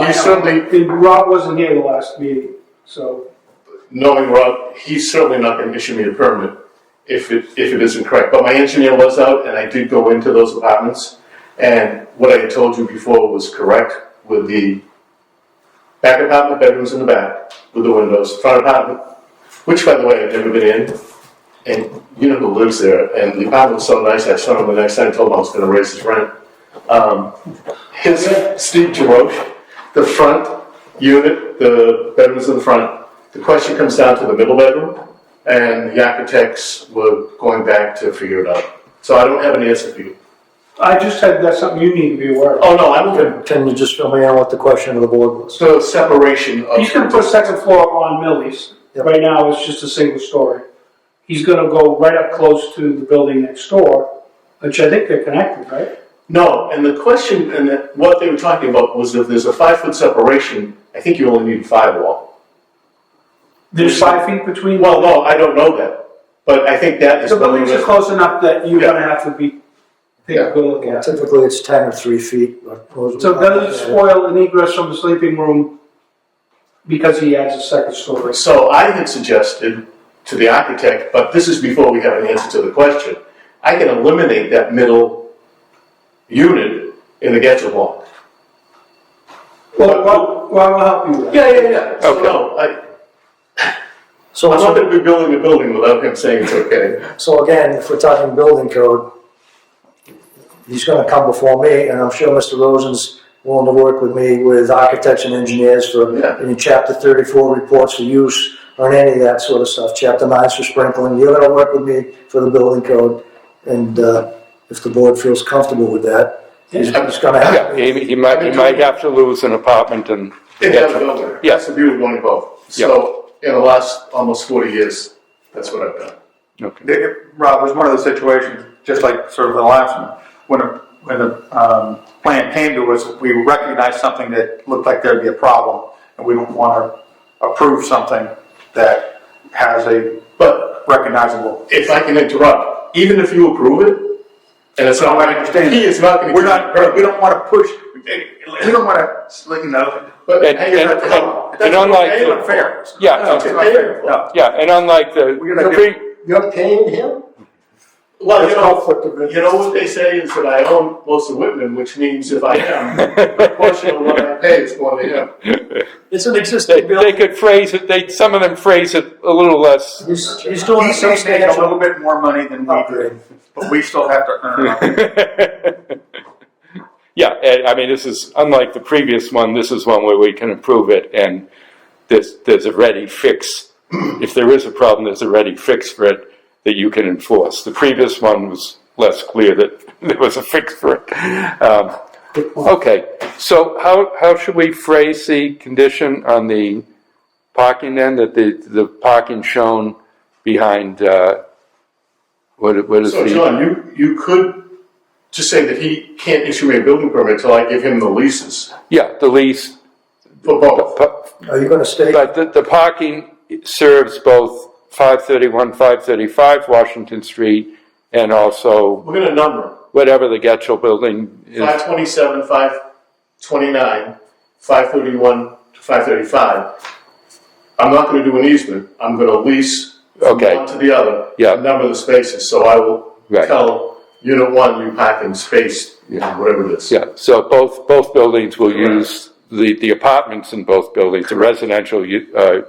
understood they, they- Rob wasn't here the last meeting, so, knowing Rob, he's certainly not gonna issue me a permit if it, if it isn't correct. But my engineer was out and I did go into those apartments. And what I had told you before was correct with the back apartment, bedrooms in the back with the windows, front apartment, which by the way, I've never been in. And you know who lives there and the apartment was so nice, I saw him the next time, told him I was gonna raise his rent. Um, his, Steve Jarosh, the front unit, the bedrooms in the front, the question comes down to the middle bedroom, and the architects were going back to figure it out. So I don't have an answer for you. I just said that's something you need to be aware of. Oh, no, I'm open. Can you just fill me in what the question of the board was? So separation of. He's gonna put second floor on Millie's, Yep. right now it's just a single story. He's gonna go right up close to the building next door, which I think they're connected, right? No, and the question, and the- what they were talking about was if there's a five-foot separation, I think you only need firewall. There's five feet between, Well, no, I don't know that, but I think that is. the buildings are close enough that you're gonna have to be, take a good look at. it. Typically, it's ten or three feet. but- So does it spoil an egress from the sleeping room because he adds a second story? So I had suggested to the architect, but this is before we have an answer to the question, I can eliminate that middle unit in the Getchell block. Well, well, well, I'll help you with that. Yeah, yeah, yeah. So no, I, So, I'm not gonna be building a building without him saying it's okay. so again, if we're talking building code, he's gonna come before me, and I'm sure Mr. Rosen's willing to work with me with architects and engineers for Yeah. any chapter thirty-four reports for use or any of that sort of stuff, chapter nines for sprinkling, you're gonna work with me for the building code, and, uh, if the board feels comfortable with that, he's, he's gonna Yeah, have. he, he might, he might have to lose an apartment and. It does go there. Yeah. That's the beauty of going both. So in the last almost forty years, that's what I've done. Okay. It- Rob, it was one of those situations, just like sort of the last one, when a, when the, um, plan came to us, we recognized something that looked like there'd be a problem, and we don't wanna approve something that has a But recognizable. if I can interrupt, even if you approve it, and it's not, I understand. he is not gonna. We're not, we don't wanna push, we don't wanna, you know. But And- hang and- on, and- hang and unlike- It's unfair. Yeah, No, it's Oh, okay. unfair. No. Yeah, and unlike the, We're gonna the do- pre- You're paying him? Well, you That's conflict of know, interest. you know what they say is that I own most of Whitman, which means if I am, a portion of what I pay is going to him. It's an they, existing they building. could phrase it, they, some of them phrase it a little less. He's, he's doing a He may make a little substantial bit more money than we do, upgrade. but we still have to earn our. Yeah, and, I mean, this is, unlike the previous one, this is one where we can improve it and there's, there's a ready fix. If there is a problem, there's a ready fix for it that you can enforce. The previous one was less clear that there was a fix for it. Um, Okay, so how, how should we phrase the condition on the parking then, that the, the parking shown behind, uh, what, what is So the? John, you, you could just say that he can't issue me a building permit till I give him the leases Yeah, the lease, for both. pa- Are you gonna stay? but the, the parking serves both five thirty-one, five thirty-five Washington Street and also We're gonna number 'em. whatever the Getchell building is. 527, 529, 531 to 535. I'm not going to do an easement. I'm going to lease from Okay. one to the other. Yeah. and Number the spaces, so I will Right. tell unit one, you pack in space, whatever it is. Yeah, so both, both buildings will use, the, the apartments in both buildings, the residential u- uh,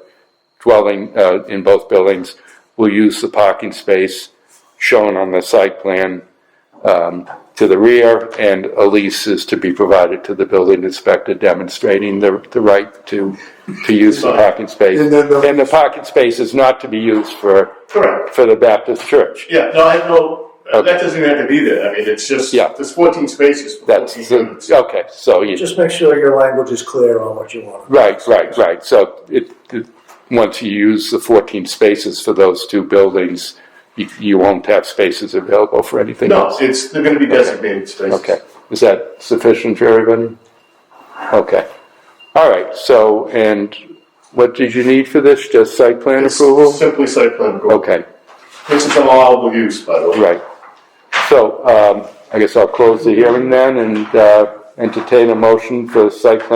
dwelling uh, in both buildings will use the parking space shown on the site plan um, to the rear, and a lease is to be provided to the building inspector demonstrating the, the right to, to use the parking space. And the parking space is not to be used for, Correct. for the Baptist church. Yeah, no, I know, that Okay. doesn't have to be there. I mean, it's just, Yeah. there's 14 spaces for 14 That's, units. the- okay, so you. Just make sure your language is clear on what you want. Right, right, right. So it, it, once you use the fourteen spaces for those two buildings, you, you won't have spaces available for anything No, else? it's, they're going to be designated spaces. Okay, is that sufficient for everybody? Okay, all right, so, and what did you need for this? Just site plan It's approval? Simply site plan approval. Okay, This is an allowable use, by the way. right. So, um, I guess I'll close the hearing then and, uh, entertain a motion for site plan